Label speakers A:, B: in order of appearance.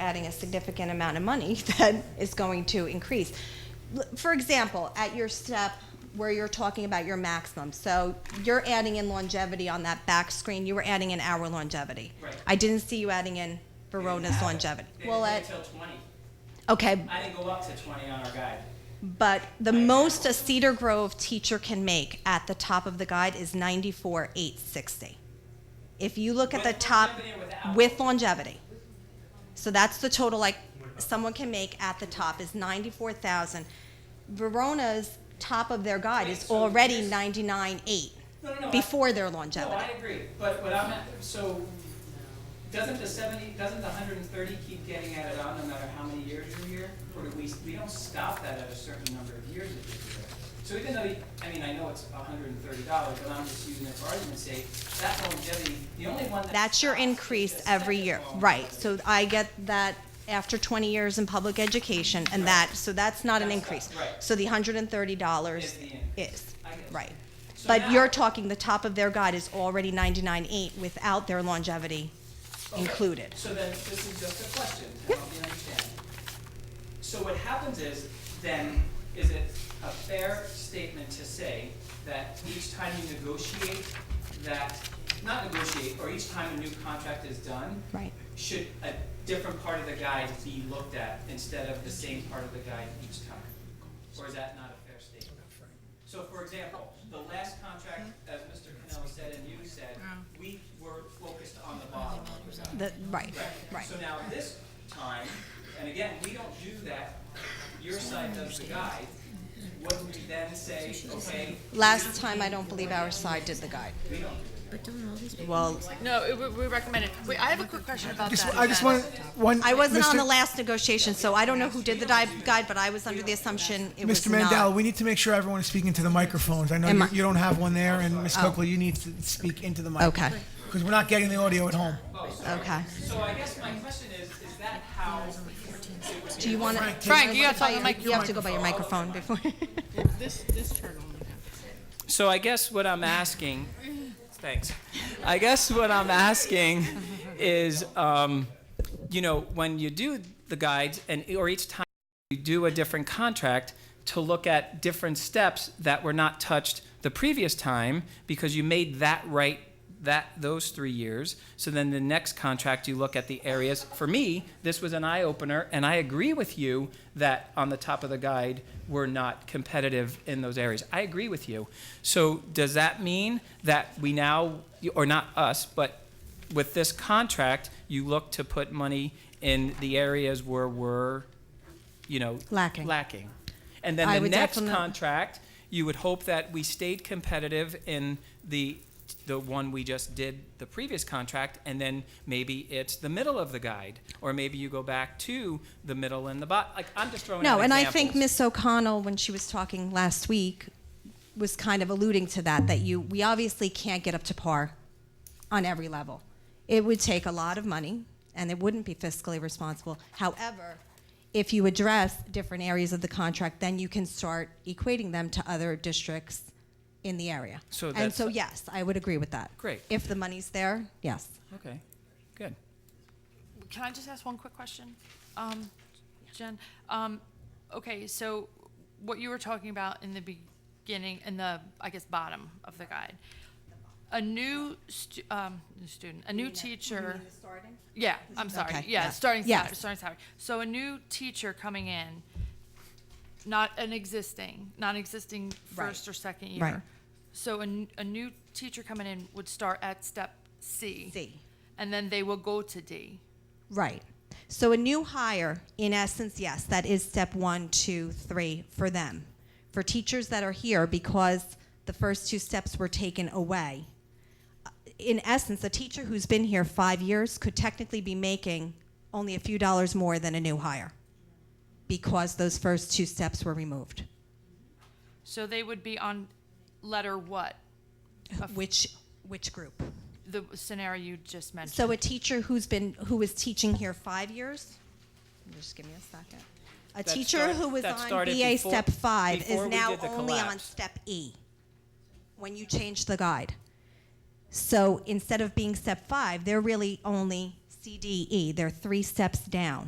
A: adding a significant amount of money that is going to increase. L- For example, at your step where you're talking about your maximum, so you're adding in longevity on that back screen, you were adding in our longevity.
B: Right.
A: I didn't see you adding in Verona's
B: have it.
A: longevity.
B: They
A: Well,
B: didn't
A: at,
B: do it till twenty.
A: okay,
B: I didn't go up to twenty on our guide.
A: but the most a Cedar Grove teacher can make at the top of the guide is ninety-four, eight sixty. If you look at the
B: With
A: top,
B: longevity or without?
A: with longevity. So that's the total, like, someone can make at the top is ninety-four thousand. Verona's top of their guide
B: Wait,
A: is
B: so
A: already
B: here's-
A: ninety-nine, eight,
B: No, no, no. I-
A: before their
B: No,
A: longevity.
B: Oh, I agree, but what I'm, at- so, doesn't the seventy, doesn't the hundred and thirty keep getting added on no matter how many years you're here? Or do we, we don't stop that at a certain number of years if you're here. So even though, you- I mean, I know it's hundred and thirty dollars, but I'm just using it for argument's sake, that longevity, the only one that.
A: That's your
B: stops is the
A: increase every
B: second
A: year,
B: one.
A: right, so I get that after twenty years in public education, and that, so that's not an
B: That's not-
A: increase.
B: right.
A: So the hundred and thirty dollars
B: Is the
A: is,
B: I get it.
A: right.
B: So
A: But
B: now-
A: you're talking, the top of their guide is already ninety-nine eight without their longevity
B: Okay.
A: included.
B: So then, this is just a question, to help me understand. So what happens is, then, is it a fair statement to say that each time you negotiate that, not negotiate, or each time a new contract is done,
A: Right.
B: should a different part of the guide be looked at instead of the same part of the guide each time? Or is that not a fair statement? So for example, the last contract, as Mr. Cannell said and you said, we were focused on the bottom of the guide.
A: The, right, right.
B: So now this time, and again, we don't do that, your side does the guide, wouldn't we then say, okay,
A: Last time, I don't believe our side did the guide.
B: we don't do
A: Well,
C: No, it- we- we recommend it. Wait, I have a quick question about
D: Just,
C: that.
D: I just want, one.
A: I wasn't on
D: Mr.
A: the last negotiation, so I don't know who did the dive guide, but I was under the assumption it was
D: Mr.
A: not.
D: Mandel, we need to make sure everyone is speaking to the microphones. I know
A: Am
D: you,
A: I- Oh.
D: you don't have one there, and Ms. Coakley, you need to speak into the mic.
A: Okay.
D: Because we're not getting the audio at home.
A: Okay.
B: So I guess my question is, is that how
A: Do you want to?
C: Frank, you have to talk on the mic.
A: You have to go by your microphone before.
E: This, this turtle.
B: So I guess what I'm asking, thanks. I guess what I'm asking is, um, you know, when you do the guides and or each time you do a different contract to look at different steps that were not touched the previous time because you made that right that those three years so then the next contract you look at the areas for me this was an eye-opener and i agree with you that on the top of the guide we're not competitive in those areas i agree with you so does that mean that we now or not us but with this contract you look to put money in the areas where we're you know
A: Lacking.
B: lacking and then
A: I
B: the
A: would
B: next
A: definite-
B: contract you would hope that we stayed competitive in the the one we just did the previous contract and then maybe it's the middle of the guide or maybe you go back to the middle and the bot like i'm just throwing
A: No,
B: out
A: and I
B: examples.
A: think Miss O'Connell, when she was talking last week, was kind of alluding to that, that you, we obviously can't get up to par on every level. It would take a lot of money, and it wouldn't be fiscally responsible. However, if you address different areas of the contract, then you can start equating them to other districts in the area.
B: So
A: And
B: that's-
A: so, yes, I would agree with that.
B: Great.
A: If the money's there, yes.
B: okay good
C: Can I just ask one quick question? Um, Jen, um, okay, so what you were talking about in the beginning, in the, I guess, bottom of the guide. A new stu- um, new student, a new teacher.
A: Mm-hmm.
C: Yeah, I'm sorry.
A: Okay,
C: Yeah,
A: yeah.
C: starting
A: Yes.
C: salary, starting salary. So a new teacher coming in, not an existing, not existing
A: Right.
C: first or second year.
A: Right.
C: So a, n- a new teacher coming in would start at step C.
A: C.
C: And then they will go to D.
A: Right. So a new hire, in essence, yes, that is step one, two, three for them. For teachers that are here, because the first two steps were taken away, Uh, in essence, a teacher who's been here five years could technically be making only a few dollars more than a new hire because those first two steps were removed,
C: So they would be on letter what? Of
A: which which group?
C: The scenario you just mentioned.
A: So a teacher who's been who is teaching here five years. Just give me a second. A
B: That
A: teacher
B: started-
A: who was
B: that
A: on
B: started
A: BA
B: before-
A: step five
B: before
A: is
B: we
A: now
B: did the
A: only on
B: collapse.
A: step E. When you change the guide, so instead of being step five, they're really only CDE. They're E. three steps down.